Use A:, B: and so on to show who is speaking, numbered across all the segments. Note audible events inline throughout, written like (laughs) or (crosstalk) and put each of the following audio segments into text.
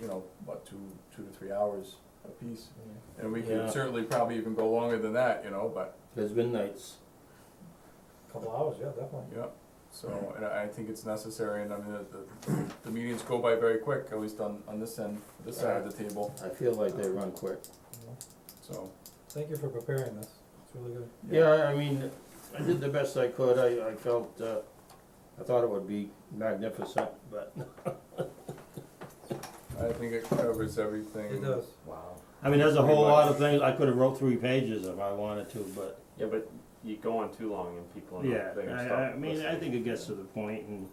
A: you know, what, two, two to three hours apiece. And we
B: Yeah.
A: could certainly probably even go longer than that, you know, but,
B: There's been nights.
C: Couple hours, yeah, definitely.
A: yeah. So, and I I think it's necessary, and I mean, the- the, the meetings go by very quick, at least on, on this end, this side of the table,
B: I feel like they run quick.
A: so.
C: Thank you for preparing this, it's really good.
B: Yeah, I- I mean, I did the best I could. I, I felt, uh, I thought it would be magnificent, but.
A: I think it covers everything.
C: It does.
D: Wow.
B: (laughs) I mean, there's a
A: Pretty
B: whole lot
A: much.
B: of things. I could have wrote three pages if I wanted to, but.
D: Yeah, but you go on too long and people are not,
B: Yeah,
D: they're gonna
B: I,
D: stop
B: I mean, I
D: listening.
B: think it gets to the point and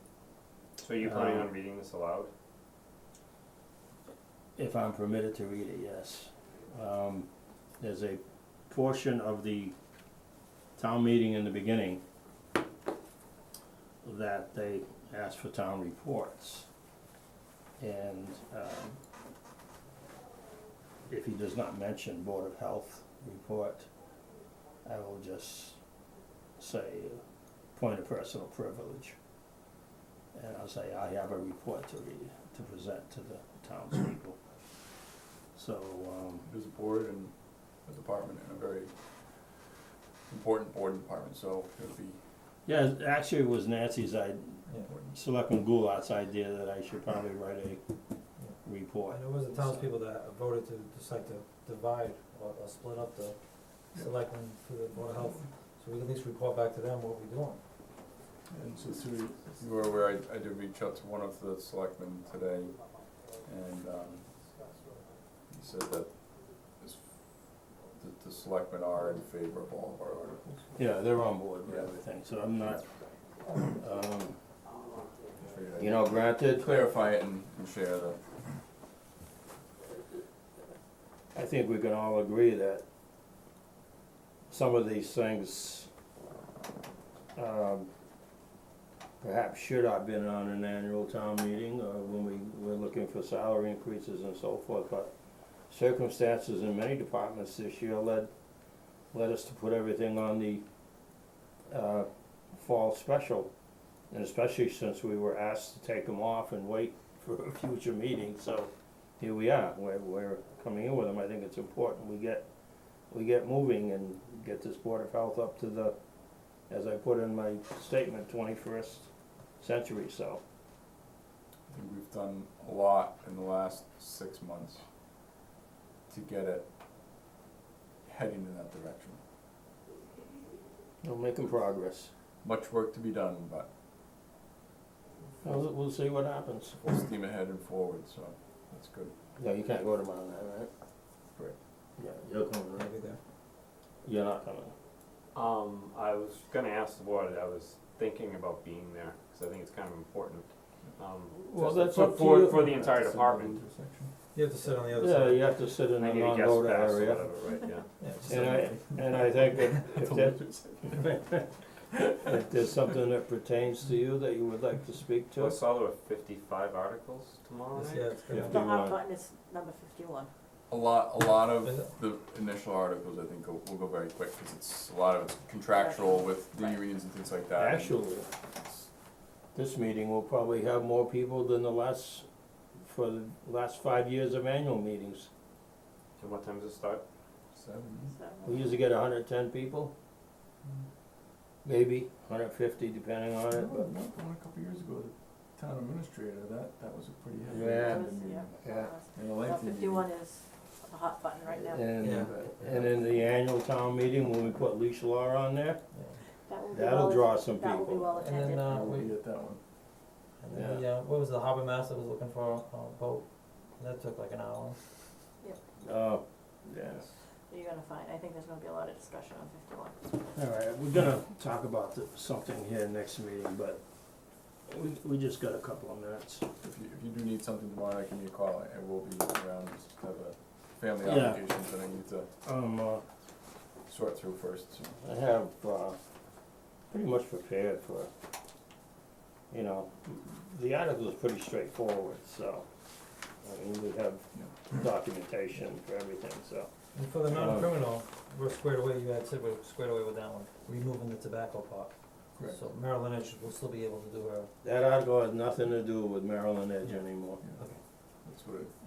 D: So are you planning
B: um,
D: on reading this aloud?
B: if I'm permitted to read it, yes. Um, there's a portion of the town meeting in the beginning that they ask for town reports. And, um, if he does not mention Board of Health report, I will just say, uh, point of personal privilege. And I'll say, I have a report to read, to present to the townspeople. So, um,
A: There's a board and a department and a very important board and department, so it would be
B: yeah, actually it was Nancy's, I,
A: important.
B: Selectman Goulart's idea that I should probably write a report.
C: And it was the townspeople that voted to decide to divide or, or split up the selectmen for the board of health, so we can at least report back to them what we're doing.
A: And so to, you were aware, I, I did reach out to one of the selectmen today, and, um, he said that this, that the selectmen are in favor of all of our articles.
B: Yeah, they're on board with everything, so I'm not, um,
A: I figured I'd
B: you know, granted,
A: Clarify it and, and share the,
B: I think we can all agree that some of these things, um, perhaps should have been on an annual town meeting, uh, when we were looking for salary increases and so forth, but circumstances in many departments this year led, led us to put everything on the, uh, fall special. And especially since we were asked to take them off and wait for (laughs) a future meeting, so here we are, we're, we're coming in with them, I think it's important we get, we get moving and get this Board of Health up to the, as I put in my statement, twenty-first century, so.
A: I think we've done a lot in the last six months to get it heading in that direction.
B: We're making progress,
A: Much work to be done, but
B: we'll, we'll see what happens.
A: full steam ahead and forward, so that's good.
B: No, you can't go tomorrow night, right?
A: Correct.
B: Yeah, you're coming, right?
C: Maybe there.
B: You're not coming.
D: Um, I was gonna ask the board, I was thinking about being there, cause I think it's kind of important. Um,
B: Well,
D: just
B: that's
D: for-
B: up to
D: for-
B: you.
D: For the entire department,
C: You have to sit on the other
B: Yeah,
C: side.
B: you have to sit in
D: I
B: a
D: need a guest
B: non-voter
D: pass or
B: area,
D: whatever, right, yeah.
C: Yeah, just sit
B: and
C: on the-
B: I, and I think that if (laughs) that, (laughs) if there's something that pertains to you that you would like to speak
D: So I
B: to,
D: saw there were fifty-five articles tomorrow
C: It's-
D: night?
C: Yeah, it's
B: Yeah.
C: gonna
E: The hot button is number fifty-one.
A: A lot, a lot of
C: Is it?
A: the initial articles, I think, will, will go very quick, cause it's, a lot of it's contractual with the
E: Right.
A: unions and things like that. and
B: actually,
A: it's-
B: This meeting will probably have more people than the last, for the last five years of annual meetings.
D: And what time does it start?
A: Seven,
E: So,
B: We usually get hundred and ten people,
A: I
B: maybe hundred and fifty depending on it, but,
A: remember one a couple years ago, the town administrator, that, that was a pretty heavy.
B: Yeah.
A: meeting,
B: yeah.
A: And a
E: Well,
A: lengthy meeting.
E: fifty-one is the hot button right now.
B: And,
C: Yeah.
B: and in the annual town meeting, when we put leash law on there,
E: That will be
B: that'll
E: well-
B: draw some
E: That will be
B: people.
E: well
C: And then,
E: attended.
C: uh,
A: I'll
C: we,
A: be at that one.
C: and then the, uh, what was the harbor master was looking for a, a boat, that took like an hour.
B: Oh, yes.
E: You're gonna find, I think there's gonna be a lot of discussion on fifty-one.
B: All right, we're gonna talk about the- something here next meeting, but we, we just got a couple of minutes.
A: If you, if you do need something tomorrow, I can give you a call, and we'll be around, just have a family
B: Yeah.
A: obligations that I need to
B: Um, uh,
A: sort through first, so.
B: I have, uh, pretty much prepared for, you know, the article is pretty straightforward, so, I mean, we have documentation for everything, so.
C: And for the non-criminal, we're squared away, you had said we're squared away with that one, removing the tobacco part.
A: Correct.
C: So Marilyn Lynch will still be able to do her
B: That article has nothing to do with Maryland Edge anymore.
A: Yeah, That's what it